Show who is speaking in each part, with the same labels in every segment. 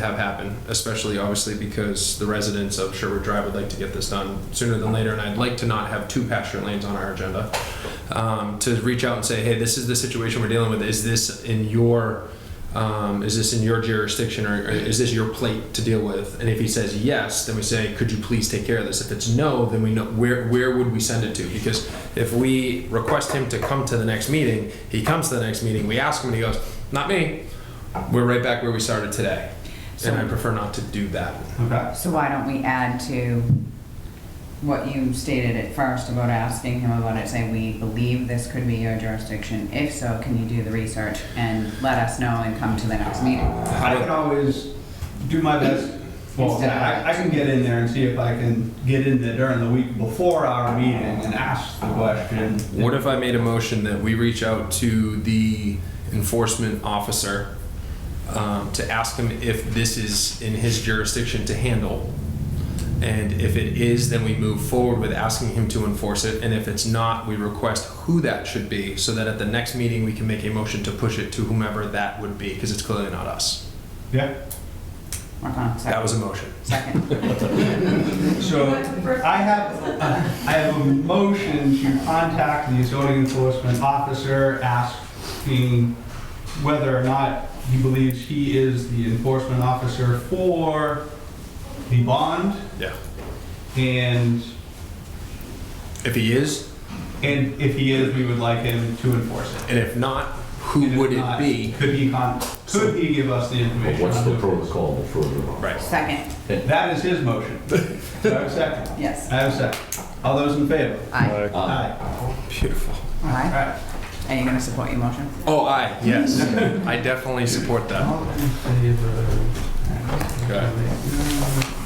Speaker 1: have happen, especially obviously because the residents of Sherwood Drive would like to get this done sooner than later, and I'd like to not have two pasture lanes on our agenda. Um, to reach out and say, hey, this is the situation we're dealing with. Is this in your, um, is this in your jurisdiction, or, or is this your plate to deal with? And if he says yes, then we say, could you please take care of this? If it's no, then we know where where would we send it to? Because if we request him to come to the next meeting, he comes to the next meeting. We ask him, and he goes, not me. We're right back where we started today. And I prefer not to do that.
Speaker 2: Okay.
Speaker 3: So why don't we add to what you stated at first about asking him about it, say, we believe this could be your jurisdiction. If so, can you do the research and let us know and come to the next meeting?
Speaker 2: I can always do my best. Well,
Speaker 3: Instead of-
Speaker 2: I, I can get in there and see if I can get in there during the week before our meeting and ask the question.
Speaker 1: What if I made a motion that we reach out to the enforcement officer um, to ask him if this is in his jurisdiction to handle? And if it is, then we move forward with asking him to enforce it. And if it's not, we request who that should be so that at the next meeting, we can make a motion to push it to whomever that would be because it's clearly not us.
Speaker 2: Yeah.
Speaker 3: Work on
Speaker 1: That
Speaker 3: it, second.
Speaker 1: was a motion.
Speaker 3: Second.
Speaker 2: So I have, I have a motion to contact the zoning enforcement officer asking whether or not he believes he is the enforcement officer for the bond
Speaker 1: Yeah.
Speaker 2: and,
Speaker 1: If he is,
Speaker 2: and if he is, we would like him to enforce it.
Speaker 1: and if not, who
Speaker 2: And if
Speaker 1: would it
Speaker 2: not,
Speaker 1: be?
Speaker 2: Could he con, could he give us the
Speaker 4: But
Speaker 2: information?
Speaker 4: What's
Speaker 2: on
Speaker 4: the
Speaker 2: who it is?
Speaker 4: protocol before the
Speaker 1: Right.
Speaker 3: Second,
Speaker 2: That is his motion. Do I have a second?
Speaker 3: yes.
Speaker 2: I have a second. All those in favor?
Speaker 3: Aye.
Speaker 4: Uh,
Speaker 2: Aye.
Speaker 1: Beautiful.
Speaker 2: All
Speaker 3: Aye.
Speaker 2: right.
Speaker 3: Are you gonna support your motion?
Speaker 1: Oh, aye, yes. I definitely support that.
Speaker 2: All in favor?
Speaker 1: Okay.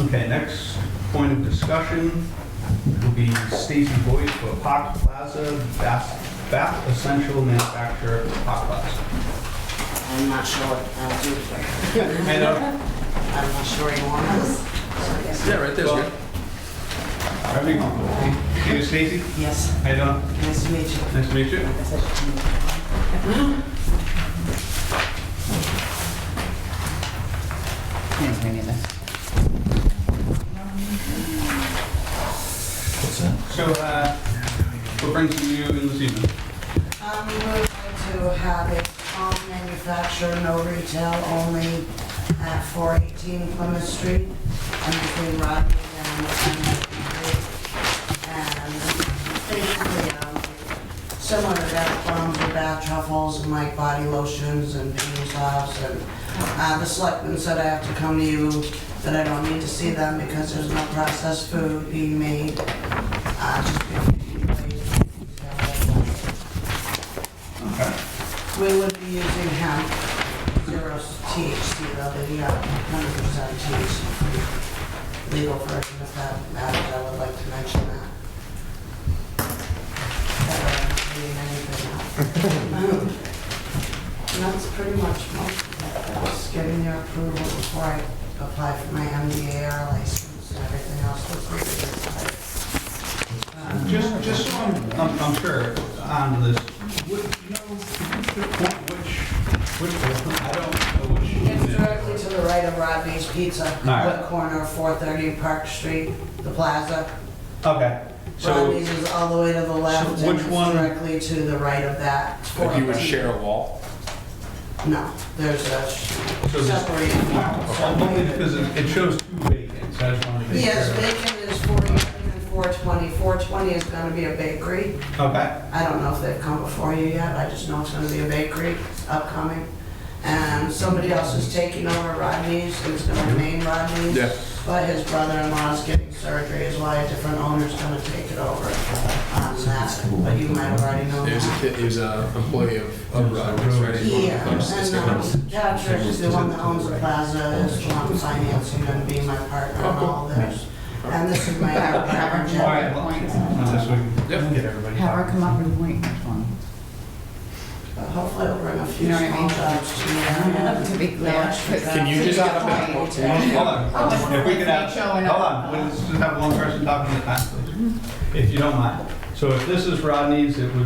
Speaker 2: Okay, next point of discussion will be Stacy Boyd for Park Plaza, Bath, Bath Essential Manufacturer of Park Plaza.
Speaker 5: I'm not sure what I'll do for you.
Speaker 2: And, uh,
Speaker 5: I'm not sure you want us.
Speaker 1: Yeah, right there's good.
Speaker 2: are we comfortable? Stacy,
Speaker 5: Yes,
Speaker 2: how you doing?
Speaker 5: nice to meet you.
Speaker 2: Nice to meet you.
Speaker 5: That's what you need.
Speaker 3: Yes, we need this.
Speaker 4: what's that?
Speaker 2: So, uh, what brings you in this evening?
Speaker 5: Um, we would like to have it all manufacturer, no retail, only at 418 Plymouth Street, and between Rodney and Street. And basically, um, similar to that, plums and bath truffles, and like body lotions and baby sops, and, uh, the selectmen said I have to come to you, that I don't need to see them because there's no processed food being made. Uh, just. We would be using hemp, zero THC, though, the hundred percent THC free legal version of that matters, I would like to mention that. That way I'm not reading anything out. And that's pretty much most of it, I was getting their approval before I applied for my MDAR license and everything else was approved. Um,
Speaker 2: Just, just so I'm, I'm- I'm sure on this, would, you know, could you point which, which, I don't know which.
Speaker 5: It's
Speaker 2: unit.
Speaker 5: directly to the right of Rodney's Pizza,
Speaker 2: right.
Speaker 5: what corner, of 430 Park Street, the plaza.
Speaker 2: Okay, so,
Speaker 5: Rodney's is all the way to the left,
Speaker 2: So
Speaker 5: and
Speaker 2: which
Speaker 5: it's
Speaker 2: one-
Speaker 5: directly to the right of that. It's
Speaker 1: If you would
Speaker 5: 430.
Speaker 1: share a wall.
Speaker 5: No, there's a
Speaker 2: So this-
Speaker 5: separated
Speaker 2: so I'm only because it it shows two vacants, I just wanted to make sure.
Speaker 5: Yes, Bacon is 418 and 420. 420 is gonna be a bakery.
Speaker 2: Okay,
Speaker 5: I don't know if they've come before you yet, I just know it's gonna be a bakery upcoming. And somebody else is taking over Rodney's, and it's gonna remain Rodney's.
Speaker 1: Yeah.
Speaker 5: But his brother-in-law's getting surgery, is why a different owner's gonna take it over on that, but you might have already known
Speaker 1: He was a
Speaker 5: that.
Speaker 1: kid, he was a employee of, of Rogers, right? He
Speaker 5: Yeah,
Speaker 1: was this
Speaker 5: and,
Speaker 1: guy.
Speaker 5: um, Chad Church is the one that owns the plaza, is the one financing and being my partner on all this. And this is my other partner,
Speaker 2: all
Speaker 5: Jeff.
Speaker 2: right, well, now this way we can get everybody.
Speaker 3: Have her
Speaker 2: talking.
Speaker 3: come up and point which one.
Speaker 5: But Hopefully it'll bring a
Speaker 3: You
Speaker 5: few
Speaker 3: know what I
Speaker 5: small
Speaker 3: mean?
Speaker 5: jobs to
Speaker 3: To be clear.
Speaker 1: Can you just get a better quotation?
Speaker 2: Hold on,
Speaker 3: I just
Speaker 2: if we could
Speaker 3: wanted to make
Speaker 2: have,
Speaker 3: sure we're not-
Speaker 2: hold on, let's just have one person talking at a time, please, if you don't mind. So So if this is Rodney's, it would